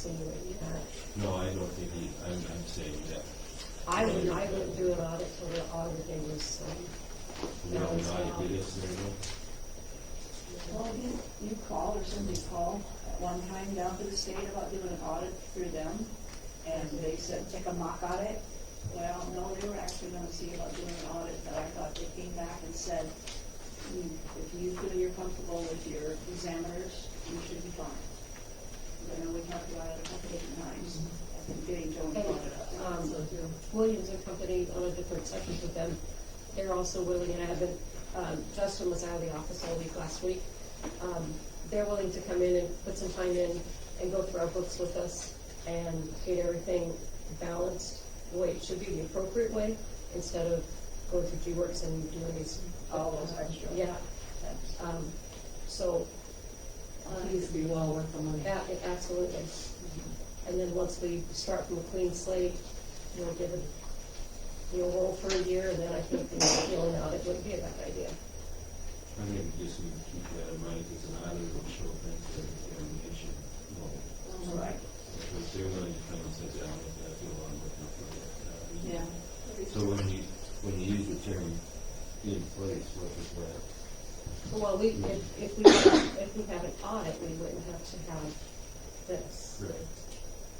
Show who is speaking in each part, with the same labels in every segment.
Speaker 1: insinuating that.
Speaker 2: No, I don't think he, I'm, I'm saying that
Speaker 1: I would, I wouldn't do an audit till the audit day was, um,
Speaker 2: we
Speaker 1: No,
Speaker 2: are
Speaker 1: it's
Speaker 2: not
Speaker 1: not.
Speaker 2: a good scenario.
Speaker 3: Well, you, you called or somebody called at one time down to the state about doing an audit through them, and they said, take a mock audit. Well, no, they were actually gonna see about doing an audit, but I thought they came back and said, "You- if you feel you're comfortable with your examiners, you should be fine. You know, we talked about it a couple different times, I think getting Joan
Speaker 1: and,
Speaker 3: brought it up.
Speaker 1: um, Williams and Company on a different section with them. They're also willing, and I've been, um, Justin was out of the office all week last week. Um, they're willing to come in and put some time in and go through our books with us and get everything balanced the way it should be, the appropriate way, instead of going through G-Works and doing these.
Speaker 3: All those extra.
Speaker 1: Yeah,
Speaker 3: That's-
Speaker 1: um, so, uh,
Speaker 3: I think
Speaker 4: Please be well worth the money.
Speaker 1: Yeah, it- absolutely. And then once we start from a clean slate, you'll give it, you'll roll for a year, and then I think the appeal and audit would be a bad idea.
Speaker 2: I mean, just need to keep that in mind, because an auditor will show things that the examination won't.
Speaker 3: that's Right.
Speaker 2: If they're willing to come and sit down with that, go on with it. uh,
Speaker 3: Yeah.
Speaker 2: So when you, when you use the term in place, what is that?
Speaker 1: So while we, if, if we, if we have an audit, we wouldn't have to have this.
Speaker 2: Right.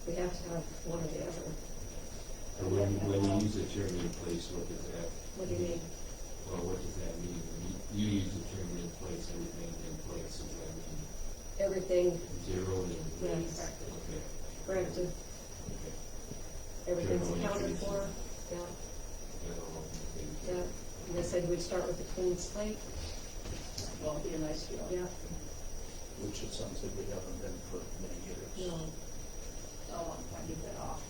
Speaker 1: We have to have one or the other.
Speaker 2: And when, when you use the term in place, what does that?
Speaker 1: What do you mean?
Speaker 2: Well, what does that mean? When You, you use the term in place, everything in place, is everything
Speaker 1: Everything
Speaker 2: zeroed in place?
Speaker 1: Yes.
Speaker 2: Okay,
Speaker 1: corrected,
Speaker 2: okay.
Speaker 1: everything's accounted for, yeah, yeah.
Speaker 2: Yeah.
Speaker 1: And I said we'd start with a clean slate,
Speaker 3: Well, it'd be a nice feeling.
Speaker 1: yeah,
Speaker 5: which is something we haven't been for many years.
Speaker 1: no.
Speaker 3: Oh, I give that off.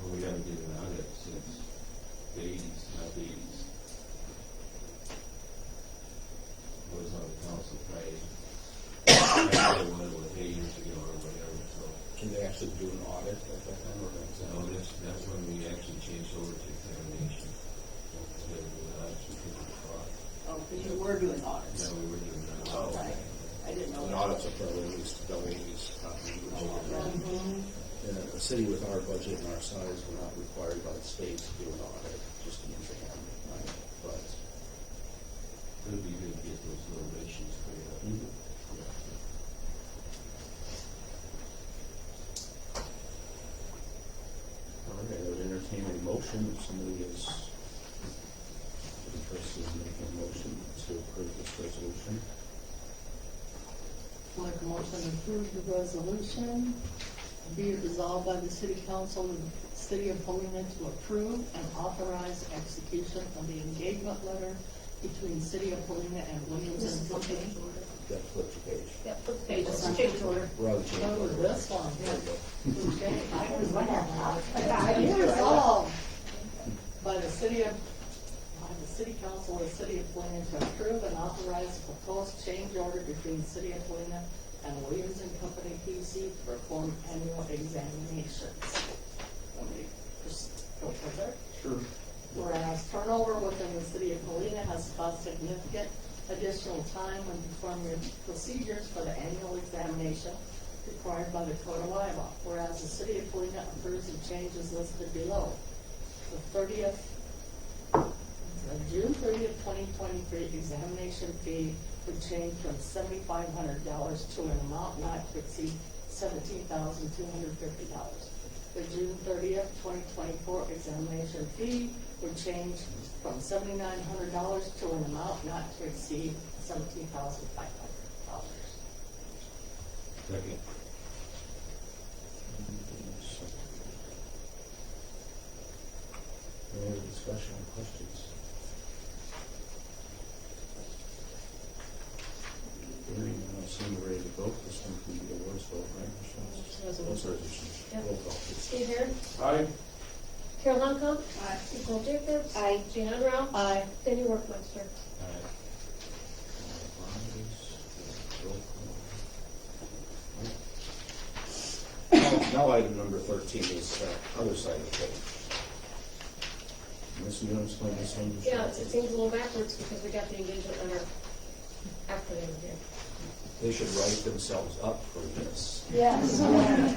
Speaker 2: Well, we haven't given out it since the eighties, not the eighties. Was on the council Friday. I did one with eight years ago or whatever, so,
Speaker 5: Can they actually do an audit at that time or is
Speaker 2: so
Speaker 5: that-
Speaker 2: that's, that's when we actually changed over to examination. So, uh, actually, we could have
Speaker 3: Oh, because you were doing
Speaker 2: fought.
Speaker 3: audits.
Speaker 2: No, we were doing that.
Speaker 5: Oh,
Speaker 3: Right. I
Speaker 5: okay.
Speaker 3: didn't know.
Speaker 5: An
Speaker 3: that.
Speaker 5: audit's a probably at least double these.
Speaker 3: Mhm.
Speaker 5: A city with our budget and our size, we're not required by the state to do an audit, just an exam, right? But
Speaker 2: It'd be good to get those little issues cleared up.
Speaker 5: Mhm.
Speaker 2: Yeah.
Speaker 5: Okay, I would entertain a motion if somebody is interested in making a motion to approve this resolution.
Speaker 4: Make a motion to approve the resolution. Be it resolved by the city council of the city of Helena to approve and authorize execution of the engagement letter between city of Helena and Williams
Speaker 1: This is
Speaker 4: and
Speaker 1: the
Speaker 4: Company.
Speaker 1: change order.
Speaker 5: That flipped the page.
Speaker 1: Yeah, flip the page, it's a change order.
Speaker 5: We're on the change
Speaker 4: Oh,
Speaker 5: order.
Speaker 4: this one,
Speaker 5: There we go.
Speaker 4: okay.
Speaker 6: I was one of them.
Speaker 4: Be resolved by the city of, by the city council of the city of Helena to approve and authorize a proposed change order between city of Helena and Williams and Company PC to perform annual examinations. Somebody just go further.
Speaker 5: Sure.
Speaker 4: Whereas turnover within the city of Helena has caused significant additional time when performing procedures for the annual examination required by the Code of Iowa. Whereas the city of Helena approves the changes listed below. The thirtieth, the June thirtieth, twenty twenty-three examination fee would change from seventy-five hundred dollars to an amount not to exceed seventeen thousand two hundred fifty dollars. The June thirtieth, twenty twenty-four examination fee would change from seventy-nine hundred dollars to an amount not to exceed seventeen thousand five hundred dollars.
Speaker 2: Second.
Speaker 5: Any other discussion or questions? Hearing none, I'll assume we're ready to vote. This one can be a voice vote, right, Michelle? Oh,
Speaker 1: Resolution.
Speaker 5: sorry, just-
Speaker 1: Yeah.
Speaker 5: Roll call, please.
Speaker 1: Steve Herr? Carol Longcom? Aye. Nicole Jacobs? Aye. Jean Enra? Aye. Danny Workmeister?
Speaker 2: All right.
Speaker 5: Roll call. Now, now item number thirteen is uh, other side of the page. Ms. Munoz, explain this one. Michelle?
Speaker 1: Yeah, it's- it seems a little backwards because we got the engagement letter after they were here.
Speaker 5: They should write themselves up for this.
Speaker 3: Yes.